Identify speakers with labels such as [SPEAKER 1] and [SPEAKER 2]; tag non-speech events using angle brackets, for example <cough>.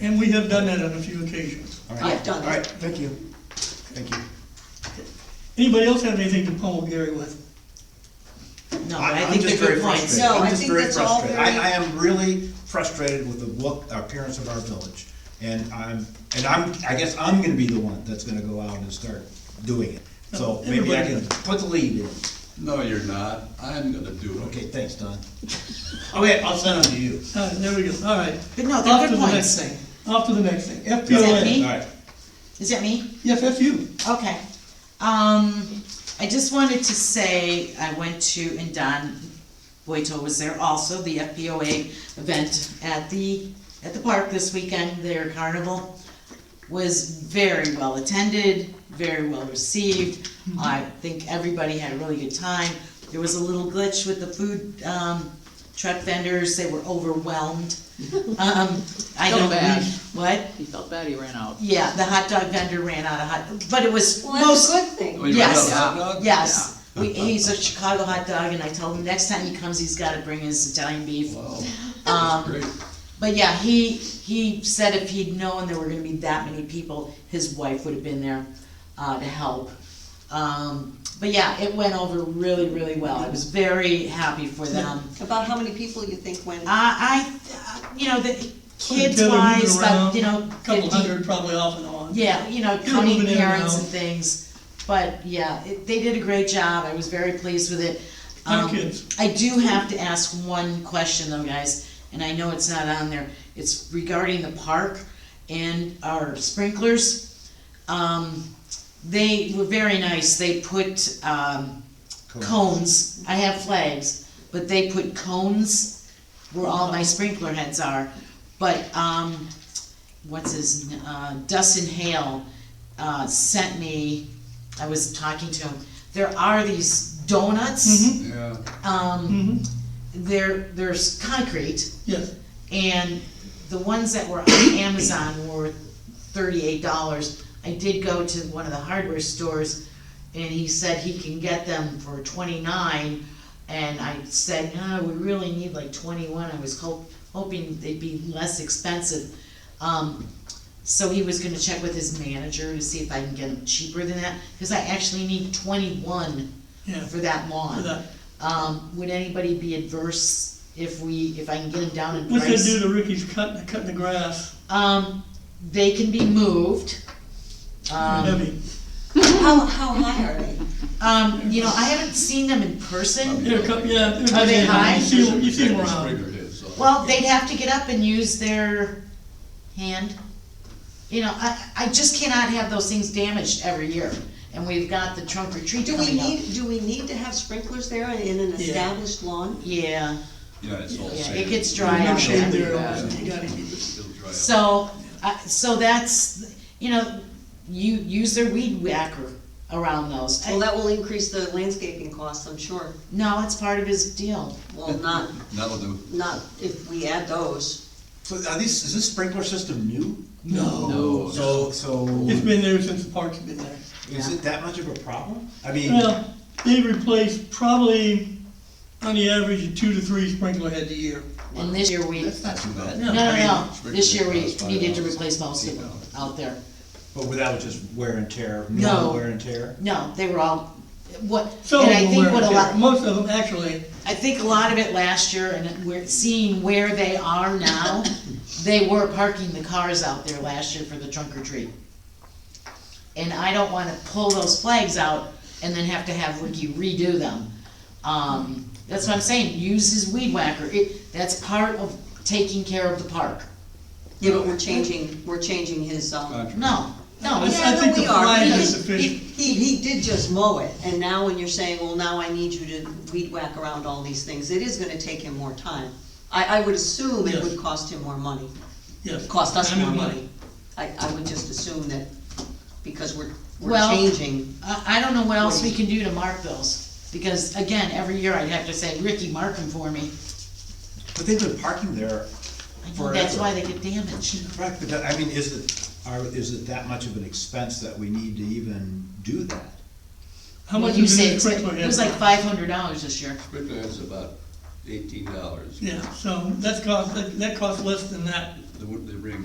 [SPEAKER 1] and we have done that on a few occasions.
[SPEAKER 2] All right.
[SPEAKER 3] I've done
[SPEAKER 2] All right,
[SPEAKER 3] it.
[SPEAKER 2] thank you, thank you.
[SPEAKER 1] Anybody else have anything to pummel Gary with?
[SPEAKER 3] Um,
[SPEAKER 4] No,
[SPEAKER 2] I-
[SPEAKER 4] but I
[SPEAKER 2] I'm
[SPEAKER 4] think
[SPEAKER 2] just
[SPEAKER 4] they're
[SPEAKER 2] very
[SPEAKER 4] good points.
[SPEAKER 2] frustrated.
[SPEAKER 3] No,
[SPEAKER 2] I'm
[SPEAKER 3] I
[SPEAKER 2] just
[SPEAKER 3] think
[SPEAKER 2] very
[SPEAKER 3] that's all
[SPEAKER 2] frustrated. I,
[SPEAKER 3] very-
[SPEAKER 2] I am really frustrated with the look, appearance of our village. And I'm, and I'm, I guess I'm gonna be the one that's gonna go out and start doing it. So maybe I can put the lead in.
[SPEAKER 5] No, you're not. I'm gonna do it.
[SPEAKER 2] Okay, thanks, <laughs> Don. Okay, I'll send them to you.
[SPEAKER 1] All right, Uh, there we go, all right.
[SPEAKER 3] But no, they're
[SPEAKER 1] Off
[SPEAKER 3] good
[SPEAKER 1] to the
[SPEAKER 3] points.
[SPEAKER 1] next thing. Off to the next thing,
[SPEAKER 3] that me?
[SPEAKER 1] FPLA.
[SPEAKER 2] All right.
[SPEAKER 3] Is that me?
[SPEAKER 1] Yes, that's you.
[SPEAKER 3] Okay. Um, I just wanted to say, I went to, and Don Boito was there also, the FPOA event at the, at the park this weekend, their carnival was very well attended, very well received.
[SPEAKER 6] Mm-hmm.
[SPEAKER 3] I think everybody had a really good time. There was a little glitch with the food, um, truck vendors, they were
[SPEAKER 6] <laughs>
[SPEAKER 3] overwhelmed. Um, I
[SPEAKER 4] Felt
[SPEAKER 3] don't,
[SPEAKER 4] bad.
[SPEAKER 3] what?
[SPEAKER 4] He felt bad he ran out.
[SPEAKER 3] Yeah, the hot dog vendor ran out of hot, but it was
[SPEAKER 6] Well, that's
[SPEAKER 3] most,
[SPEAKER 6] a good thing.
[SPEAKER 5] Oh, you ran out of
[SPEAKER 3] Yes.
[SPEAKER 5] hot dogs?
[SPEAKER 3] yes. We, he's a Chicago hot dog, and I told him next time he comes, he's gotta bring his Italian beef.
[SPEAKER 5] Wow, Oh, that's
[SPEAKER 3] Um,
[SPEAKER 5] great.
[SPEAKER 3] but yeah, he, he said if he'd known there were gonna be that many people, his wife would have been there, uh, to help. Um, but yeah, it went over really, really well. I was very happy for them.
[SPEAKER 6] About how many people you think went?
[SPEAKER 3] I, I, you know, the kids
[SPEAKER 1] Together, moving
[SPEAKER 3] wise, but, you know,
[SPEAKER 1] around, Couple
[SPEAKER 3] fifty,
[SPEAKER 1] hundred probably off and on.
[SPEAKER 3] Yeah, you know,
[SPEAKER 1] You're
[SPEAKER 3] counting
[SPEAKER 1] moving in and
[SPEAKER 3] parents
[SPEAKER 1] out.
[SPEAKER 3] and things, but yeah, it, they did a great job, I was very pleased with it.
[SPEAKER 1] Thank
[SPEAKER 3] Um,
[SPEAKER 1] you.
[SPEAKER 3] I do have to ask one question though, guys, and I know it's not on there, it's regarding the park and our sprinklers. Um, they were very nice, they put, um, cones, I have flags, but they put cones where all my sprinkler heads are, but, um, what's his, n- uh, Dustin Hale, uh, sent me, I was talking to him, there are these donuts,
[SPEAKER 5] Yeah,
[SPEAKER 3] um,
[SPEAKER 1] hmm
[SPEAKER 3] there, there's concrete,
[SPEAKER 1] yes.
[SPEAKER 3] and the ones that were on Amazon were thirty-eight dollars. I did go to one of the hardware stores, and he said he can get them for twenty-nine, and I said, no, we really need like twenty-one, I was ho- hoping they'd be less expensive. Um, so he was gonna check with his manager to see if I can get them cheaper than that, cause I actually need twenty-one
[SPEAKER 1] Yeah.
[SPEAKER 3] for that lawn.
[SPEAKER 1] For that.
[SPEAKER 3] Um, would anybody be adverse if we, if I can get them down in price?
[SPEAKER 1] What's that do to Ricky's cutting, cutting the grass?
[SPEAKER 3] Um, they can be moved. Um,
[SPEAKER 1] Heavy.
[SPEAKER 6] How, how high are they?
[SPEAKER 3] um, you know, I haven't seen them in person.
[SPEAKER 1] They're cut- yeah. they're-
[SPEAKER 3] Are they high?
[SPEAKER 1] You see, you see them around.
[SPEAKER 5] Springer did, so-
[SPEAKER 3] Well, they'd have to get up and use their hand. You know, I, I just cannot have those things damaged every year, and we've got the trunk or treat
[SPEAKER 6] Do we
[SPEAKER 3] coming up.
[SPEAKER 6] need, do we need to have sprinklers there in an established lawn?
[SPEAKER 3] Yeah,
[SPEAKER 6] Oh,
[SPEAKER 5] Yeah, it's all
[SPEAKER 3] yeah,
[SPEAKER 5] sand.
[SPEAKER 3] it gets
[SPEAKER 1] There's
[SPEAKER 3] dry
[SPEAKER 1] No
[SPEAKER 3] out
[SPEAKER 1] shade
[SPEAKER 3] there.
[SPEAKER 1] there, you gotta keep it.
[SPEAKER 5] It'll dry out.
[SPEAKER 3] So, I so that's, you know, you, use their weed whacker around those.
[SPEAKER 6] Well, that will increase the landscaping costs, I'm sure.
[SPEAKER 3] No, it's part of his deal.
[SPEAKER 6] Well, not,
[SPEAKER 5] That'll do.
[SPEAKER 6] not if we add those.
[SPEAKER 2] So are these, is this sprinkler system new?
[SPEAKER 5] No.
[SPEAKER 2] So, so
[SPEAKER 1] It's been there since the park's been there.
[SPEAKER 2] is it that much of a problem? I mean,
[SPEAKER 1] Well, they replace probably, on the average, two to three sprinkler heads a year.
[SPEAKER 3] And this year we,
[SPEAKER 2] that's not too bad.
[SPEAKER 3] no, no, no,
[SPEAKER 5] Spring
[SPEAKER 3] this year we
[SPEAKER 5] Creek costs
[SPEAKER 3] needed to
[SPEAKER 5] $5.
[SPEAKER 3] replace most of them out there.
[SPEAKER 2] But without just wear and tear,
[SPEAKER 3] No.
[SPEAKER 2] no wear and tear?
[SPEAKER 3] No, they were all, what,
[SPEAKER 1] Some
[SPEAKER 3] and
[SPEAKER 1] of
[SPEAKER 3] I
[SPEAKER 1] them
[SPEAKER 3] think
[SPEAKER 1] were,
[SPEAKER 3] what a
[SPEAKER 1] yeah,
[SPEAKER 3] lot,
[SPEAKER 1] most of them actually,
[SPEAKER 3] I think a lot of it last year, and we're seeing where they are now, they were parking the cars out there last year for the trunk or treat. And I don't wanna pull those flags out and then have to have Ricky redo them. Um, that's what I'm saying, use his weed whacker, it, that's part of taking care of the park.
[SPEAKER 6] Yeah, but we're changing, we're changing his, um,
[SPEAKER 5] Contract.
[SPEAKER 3] No, no,
[SPEAKER 1] I
[SPEAKER 3] it's-
[SPEAKER 6] Yeah,
[SPEAKER 1] I think
[SPEAKER 6] no,
[SPEAKER 1] the
[SPEAKER 6] we are.
[SPEAKER 1] flag
[SPEAKER 6] We
[SPEAKER 1] is
[SPEAKER 6] just-
[SPEAKER 1] sufficient.
[SPEAKER 6] He, he did just mow it, and now when you're saying, well, now I need you to weed whack around all these things, it is gonna take him more time. I, I would assume it
[SPEAKER 1] Yes.
[SPEAKER 6] would cost him more money.
[SPEAKER 1] Yes.
[SPEAKER 6] cost us
[SPEAKER 1] Time and
[SPEAKER 6] more money. I, I would just assume that, because we're, we're
[SPEAKER 3] Well-
[SPEAKER 6] changing.
[SPEAKER 3] I, I don't know what else we can do to mark those, because again, every year I'd have to say, Ricky, mark them for me.
[SPEAKER 2] But they've been parking there
[SPEAKER 3] I know
[SPEAKER 2] forever.
[SPEAKER 3] That's why they get damaged.
[SPEAKER 2] Correct, but that, I mean, is it, are, is it that much of an expense that we need to even do that?
[SPEAKER 1] How
[SPEAKER 3] Well,
[SPEAKER 1] much
[SPEAKER 3] you
[SPEAKER 1] is
[SPEAKER 3] say
[SPEAKER 1] it
[SPEAKER 3] it's-
[SPEAKER 1] sprinkler head?
[SPEAKER 3] It was like five hundred dollars this year.
[SPEAKER 5] Sprinkler is about eighteen dollars.
[SPEAKER 1] Yeah, so that's cost, that- that costs less than that
[SPEAKER 5] The, the ring